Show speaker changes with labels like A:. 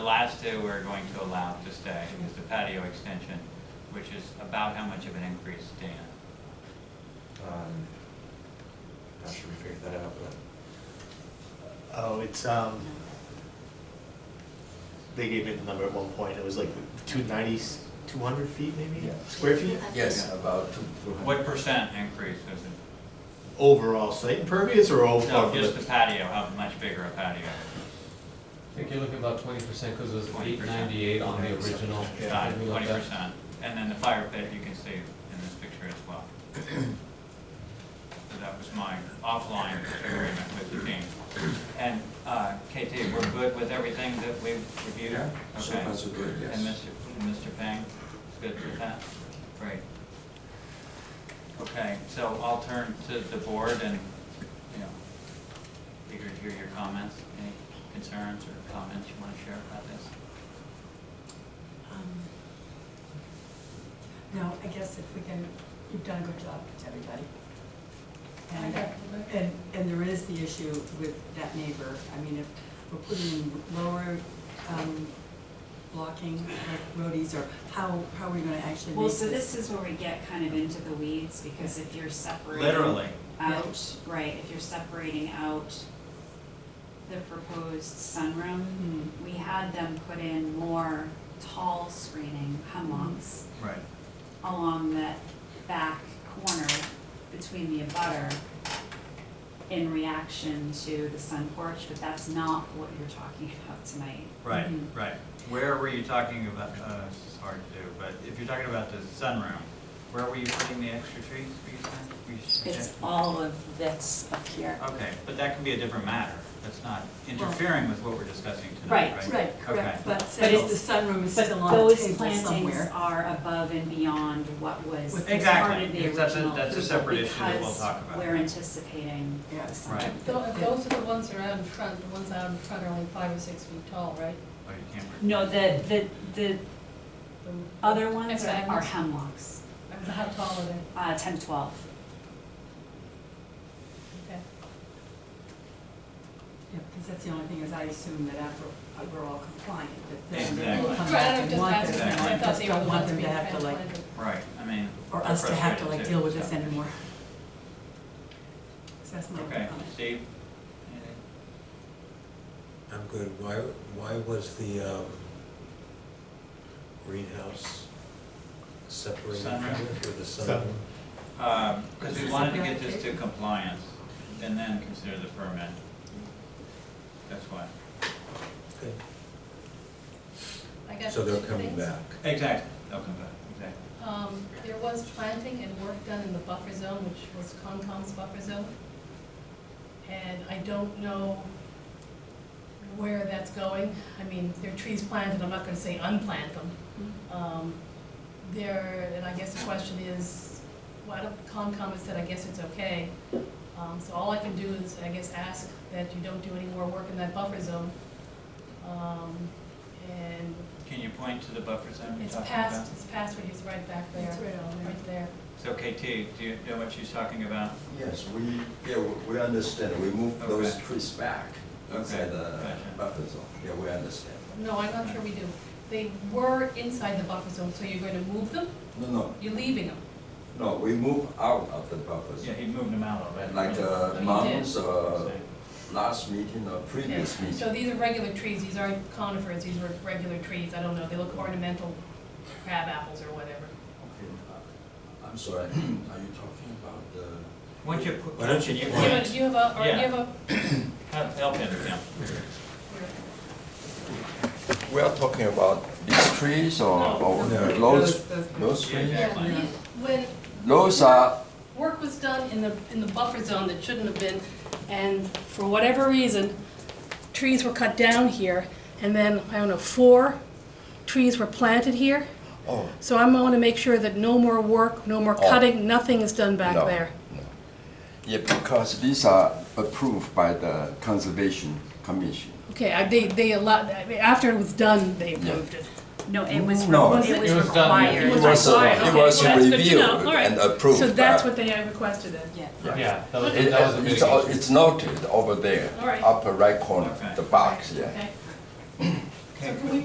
A: The last two we're going to allow to stay is the patio extension, which is about how much of an increase, Dan?
B: Um, Not sure we figured that out, but
C: Oh, it's, um, they gave me the number at one point, it was like two nineties, two hundred feet maybe,
B: Yeah.
C: square feet?
B: yes, about two, two hundred.
A: What percent increase is it?
C: Overall site impervious or
A: No,
C: overall?
A: just the patio, how much bigger a patio?
D: I think you're looking about twenty percent, because it was
A: 20%.
D: eight ninety-eight on the original.
B: Yeah,
D: something like
A: Twenty
D: that.
A: percent. And then the fire pit, you can see in this picture as well. So that was my offline agreement with the team. And, uh, KT, we're good with everything that we've reviewed?
B: Yeah, so
A: Okay.
B: far so good,
A: And
B: yes.
A: Mr. and Mr. Pang is good with that? Great. Okay, so I'll turn to the board and, you know, eager to hear your comments. Any concerns or comments you want to share about this?
E: Um, No, I guess if we can, you've done a good job to everybody. And, and, and there is the issue with that neighbor. I mean, if we're putting in lower, um, blocking like roadies or how, how are we gonna actually
F: Well,
E: make
F: so
E: this?
F: this is where we get kind of into the weeds, because if you're separating.
A: Literally.
F: Out, right, if you're separating out the proposed sunroom,
E: Hmm.
F: we had them put in more tall screening hummocks
A: Right.
F: along that back corner between the abutter in reaction to the sun porch, but that's not what you're talking about tonight.
A: Right,
E: Mhm.
A: right. Where were you talking about, uh, this is hard to do, but if you're talking about the sunroom, where were you putting the extra trees, were you saying? Were you
F: It's
A: suggesting-
F: all of this up here.
A: Okay, but that can be a different matter. That's not interfering with what we're discussing tonight,
F: Right,
A: right?
E: Right,
A: Okay.
E: correct, but
F: it's-
E: since the sunroom is still
F: But
E: on the
F: those
E: table
F: plantings
E: somewhere.
F: are above and beyond what was
E: With-
F: part of
A: Exactly,
F: the
A: because that's a-
F: original
A: that's a
F: approval
A: separate issue that we'll
F: because
A: talk about.
F: we're anticipating
E: Yes.
F: something.
A: Right.
G: Tho- If those are the ones that are out in front, the ones out in front are only five or six feet tall, right?
A: Oh, you can't.
F: No, the, the, the
G: The-
F: other ones are
G: Hexagons.
F: are hemlocks,
G: I don't know How tall are they?
F: uh, ten to twelve.
G: Okay.
E: Yeah, because that's the only thing is I assume that after, uh, we're all compliant, that then they
A: Exactly.
E: will come
G: Right,
E: back
G: I'm
E: and
G: just
E: want
G: asking,
E: this.
A: I
E: and I
G: thought
E: just
G: they were
E: don't
G: the
E: want
G: ones
E: them to
G: being
E: have to like,
G: transplanted.
A: Right, I mean.
E: or
A: they're
E: us to have to
A: frustrated
E: like
A: too,
E: deal with this
A: so.
E: anymore. So that's my
A: Okay,
E: comment.
A: Steve? Anything?
H: I'm good. Why, why was the um, greenhouse separated from
A: Sunroom.
H: it with the sun?
C: Sunroom.
A: Because we wanted to get this to compliance and then consider the permit. That's why.
H: Okay.
G: I got
H: So they're
G: two
H: coming
G: things.
H: back.
A: Exactly, they'll come back, exactly.
G: Um, there was planting and work done in the buffer zone, which was Concom's buffer zone. And I don't know where that's going. I mean, there are trees planted, I'm not gonna say unplant them.
E: Mm-hmm.
G: Um, there, and I guess the question is, why don't, Concom has said, I guess it's okay. Um, so all I can do is, I guess, ask that you don't do any more work in that buffer zone. Um, and
A: Can you point to the buffer zone you're
G: it's
A: talking about?
G: past, it's past where he's right back there.
E: It's right on there.
G: Right there.
A: So KT, do you know what she's talking about?
B: Yes, we, yeah, we- we understand, we moved those
A: Okay.
B: trees back inside the
A: gotcha.
B: buffer zone, yeah, we understand.
G: No, I'm not sure we do. They were inside the buffer zone, so you're going to move them?
B: No, no,
G: You're leaving them?
B: no, we move out of the buffer
A: Yeah,
B: zone.
A: he moved them out already.
B: Like
G: Oh,
B: the
G: you
B: mountains,
G: did.
B: uh, last meeting or previous
G: Okay. So
B: meeting.
G: these are regular trees, these aren't conifers, these were regular trees, I don't know, they look ornamental crab apples or whatever.
B: Okay, uh, I'm sorry, are you talking about the,
A: Why don't you, pu-
H: Why don't
A: can you
H: you
G: Do you have a,
A: point,
G: do you have a, or do you have a?
A: help help him, Kim.
B: we are talking about these trees or,
G: No.
B: or
H: No.
B: those,
E: Those-
B: those
A: Yeah,
B: trees?
A: exactly.
G: Yeah, these- When
B: Those are
G: work was done in the, in the buffer zone that shouldn't have been, and for whatever reason, trees were cut down here, and then, I don't know, four trees were planted here.
I: Oh.
G: So I'm gonna make sure that no more work, no more
I: Oh.
G: cutting, nothing is done back
I: No,
G: there.
I: no. Yeah, because these are approved by the Conservation Commission.
G: Okay, I- they, they allowed, I mean, after it was done, they approved it.
F: No, it was,
B: No.
F: re- it was
D: It was done, yeah.
F: required.
D: It
I: It was, a-
G: Right,
I: it
G: uh, okay,
I: was
G: well, that's good to
I: reviewed
G: know, all right.
I: and approved.
G: So that's
I: by-
G: what they had requested then?
F: Yeah.
D: Yeah, that was,
I: It-
D: that was a
I: It's, all-
D: mitigation.
I: it's noted over there,
G: All right.
I: upper right corner,
A: Okay.
I: the box, yeah.
G: Okay.
E: So can we